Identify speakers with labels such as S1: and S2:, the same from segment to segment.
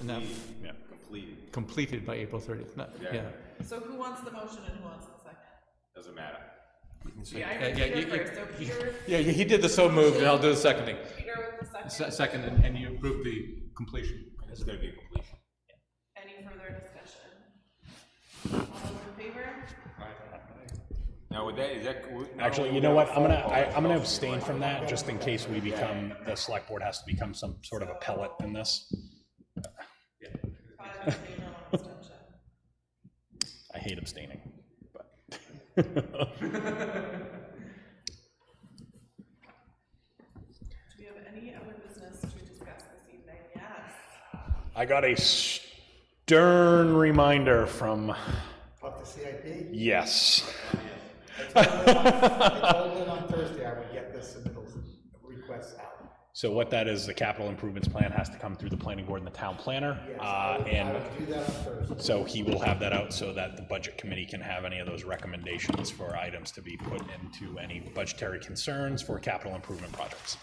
S1: And that
S2: Complete-
S3: Yeah.
S2: Completed,
S1: completed by April thirtieth, not,
S2: Yeah.
S1: yeah.
S4: So who wants the motion and who wants the second?
S2: doesn't matter.
S4: Yeah, I
S1: Uh,
S4: heard
S1: yeah,
S4: Peter
S1: you- you-
S4: first, so Peter,
S1: Yeah, he did the so moved, and I'll do the seconding.
S4: Peter with the
S1: Se- Second,
S4: second.
S1: and and you approved the completion.
S2: It's gonna be a completion.
S4: Any further discussion? All those in favor?
S2: Now, would that, is that? would- not
S3: Actually,
S2: only
S3: you know
S2: would
S3: what,
S2: that
S3: I'm gonna,
S2: phone call,
S3: I,
S2: it's
S3: I'm gonna
S2: also be
S3: abstain
S2: like-
S3: from that, just in case we become, the select board has to become some sort of a pellet in this.
S4: Five in favor, one abstention.
S3: I hate abstaining, but.
S4: Do we have any other business to discuss this evening? Yes.
S3: I got a stern reminder from,
S5: Up to CIP?
S3: yes.
S5: I told them on Thursday I would get the submittals requests out.
S3: So what that is, the capital improvements plan has to come through the planning board and the town planner.
S5: Yes, I
S3: Uh,
S5: would- I
S3: and
S5: would do that on Thursday.
S3: so he will have that out so that the budget committee can have any of those recommendations for items to be put into any budgetary concerns for capital improvement projects.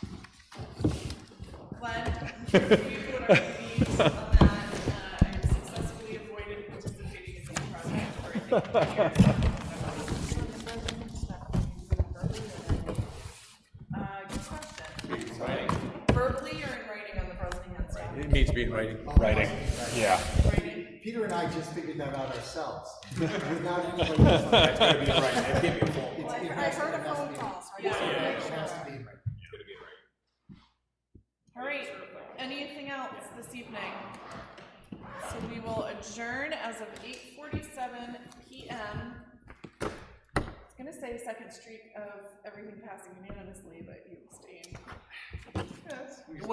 S4: Glenn, you and our team on that, uh, I have successfully avoided participating in this project for I think, years. Uh, good question. Verbally or in writing on the Bresnahan stuff?
S1: It needs to be in writing.
S3: Writing, yeah.
S4: Writing.
S5: Peter and I just figured that out ourselves, without anybody else.
S6: Well, I I heard a phone call, so I just wanted to make
S5: It has
S6: sure.
S5: to be right.
S4: All right, anything else this evening? So we will adjourn as of eight forty-seven PM. I was gonna say second streak of everything passing unanimously, but you abstained. Yes.